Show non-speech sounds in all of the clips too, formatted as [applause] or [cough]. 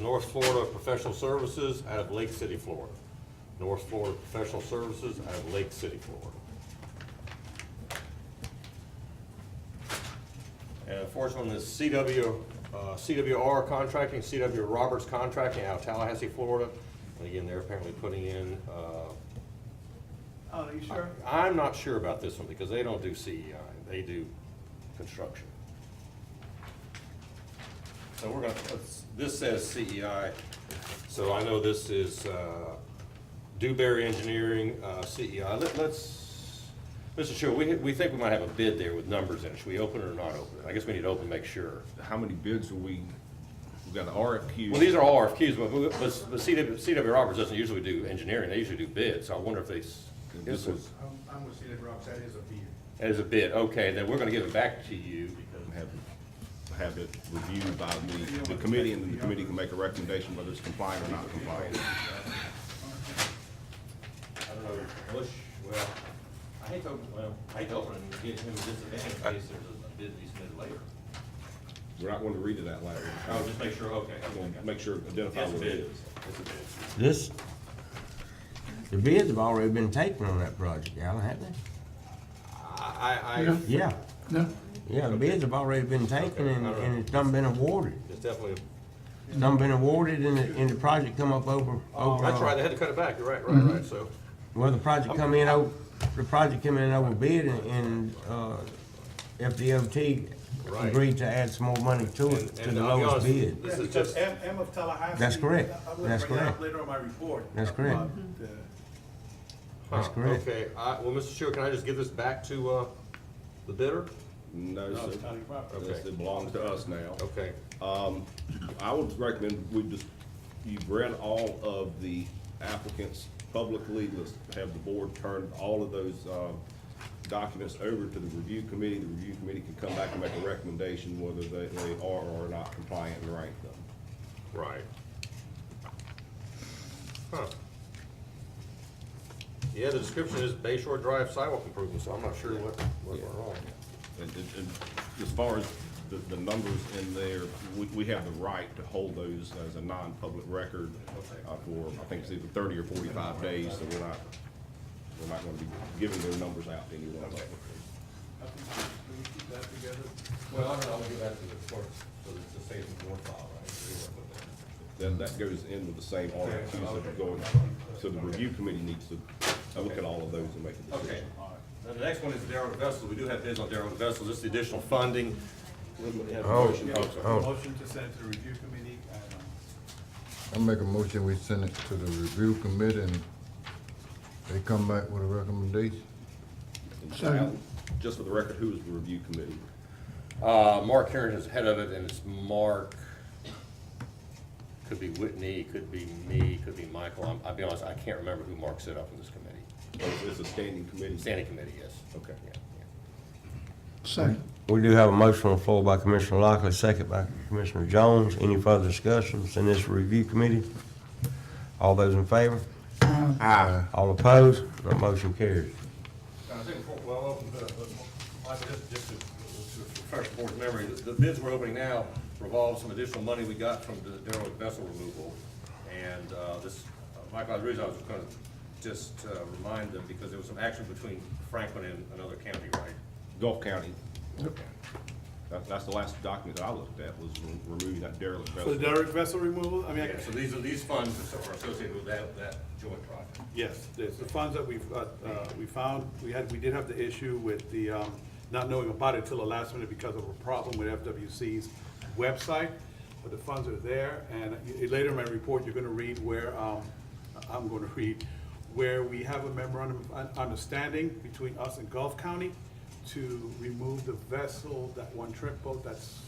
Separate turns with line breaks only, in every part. North Florida Professional Services out of Lake City, Florida. North Florida Professional Services out of Lake City, Florida. And the fourth one is CW, uh, CWR Contracting, CW Roberts Contracting out of Tallahassee, Florida. And again, they're apparently putting in, uh,
Oh, you sure?
I'm not sure about this one because they don't do CEI, they do construction. So we're gonna, let's- this says CEI, so I know this is uh, Dewberry Engineering, uh, CEI. Let- Let's, Mr. Sherwood, we, we think we might have a bid there with numbers in it. Should we open it or not open it? I guess we need to open, and make sure.
How many bids are we, we got an RFQ?
Well, these are all RFQs, but, but but CW, CW Roberts doesn't usually do engineering, they usually do bids, so I wonder if they, s-
This was,
I'm, I'm with Cedar Rocks, that is a bid.
as a bid, okay, then we're gonna give it back to you because,
have, have it reviewed by the, the committee, and then the committee can make a recommendation whether it's compliant or not compliant.
I don't know, Bush, well, I hate to, open- well, I hate to open and get him a disadvantage in case there's a bid we submit later.
We're not going to read it out loud.
Oh, just make sure, okay.
We're gonna Make sure, identify
It's a
what
bid.
it
It's a bid.
This, the bids have already been taken on that project, Alan, haven't
I, I, I-
Yeah.
they? Yeah,
No,
yeah, the bids have already been taken and, and it's done been awarded.
it's definitely,
It's done been awarded and the, and the project come up over,
oh,
over,
that's right,
uh,
they had to cut it back, you're right, right,
Mm-hmm.
right, so.
well, the project come in over, the project come in over bid and, and, uh, FDOT
Right.
agreed to add some more money to
And-
it, to
and
the
I'll be honest,
lowest bid.
This
Yeah,
is
because
just-
M, M of Tallahassee.
That's
I-
correct.
I would
That's
bring that up
correct.
Later on my report.
That's correct.
about uh, the-
huh,
That's correct.
Okay, I, well, Mr. Sherwood, can I just give this back to, uh, the bidder?
is. No,
No,
sir.
it's county property.
This- It belongs to us now.
Okay,
I would recommend we just, you've read all of the applicants publicly, let's have the board turn all of those, uh, documents over to the review committee, the review committee can come back and make a recommendation whether they, they are or are not compliant and rank them.
right. Huh. Yeah, the description is Bay Shore Drive sidewalk improvement, so I'm not sure what, what went wrong.
And, and, and as far as the, the numbers in there, we, we have the right to hold those as a non-public record uh, for, I think it's either thirty or forty-five days, so we're not, we're not gonna be giving their numbers out to anyone.
I think we- Can we keep that together?
Well, I don't know, we'll give that to the clerk, so it's the same board file, right?
Then that goes in with the same RFQs that are going, so the review committee needs to look at all of those and make a
Okay,
decision.
now the next one is derelict vessels, we do have bids on derelict vessels, this is the additional funding.
Oh, oh.
Motion to send to the review committee, and, um,
I make a motion, we send it to the review committee and they come back with a recommendation.
And Sal, Just for the record, who is the review committee?
Uh, Mark Herring is head of it, and it's Mark, could be Whitney, could be me, could be Michael, I'm, I'll be honest, I can't remember who Mark set up in this committee.
Oh, It's a standing committee.
Standing committee, yes.
Okay.
Yeah, yeah.
Second.
We do have a motion on the floor by Commissioner Lockley, second by Commissioner Jones. Any further discussions in this review committee? All those in favor? Aye. All opposed? That motion carries.
I think, before- well, the- the- I just, just to to refresh the board's memory, the the bids we're opening now revolve some additional money we got from the derelict vessel removal. And uh, this, uh, Michael, the reason I was gonna just uh, remind them, because there was some action between Franklin and another county, right?
Gulf County. That, that's the last document that I looked at was re- removing that derelict
For
vessel.
the direct vessel removal, I mean, I-
Yeah, so these are, these funds are associated with that, that joint project.
yes, there's the funds that we've, uh, uh, we found, we had, we did have the issue with the, um, not knowing about it till the last minute because of a problem with FWC's website, but the funds are there, and y- later in my report, you're gonna read where, um, I'm gonna [laughs] read, where we have a memorandum of un- understanding between us and Gulf County to remove the vessel, that one trip boat that's,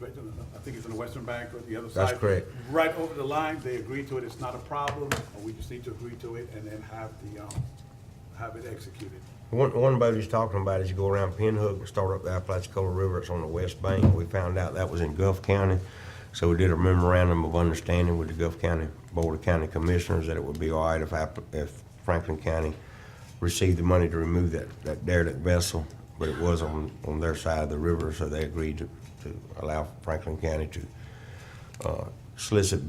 right on the- I think it's on the western bank or the other side.
That's correct.
right over the line, they agree to it, it's not a problem, and we just need to agree to it and then have the, um, have it executed.
One, one boat he's talking about is you go around Pinhook and start up the Apalachicola River, it's on the west bank. We found out that was in Gulf County, so we did a memorandum of understanding with the Gulf County Board of County Commissioners that it would be all right if, App- if Franklin County received the money to remove that, that derelict vessel, but it was on, on their side of the river, so they agreed to, to allow Franklin County to, uh, solicit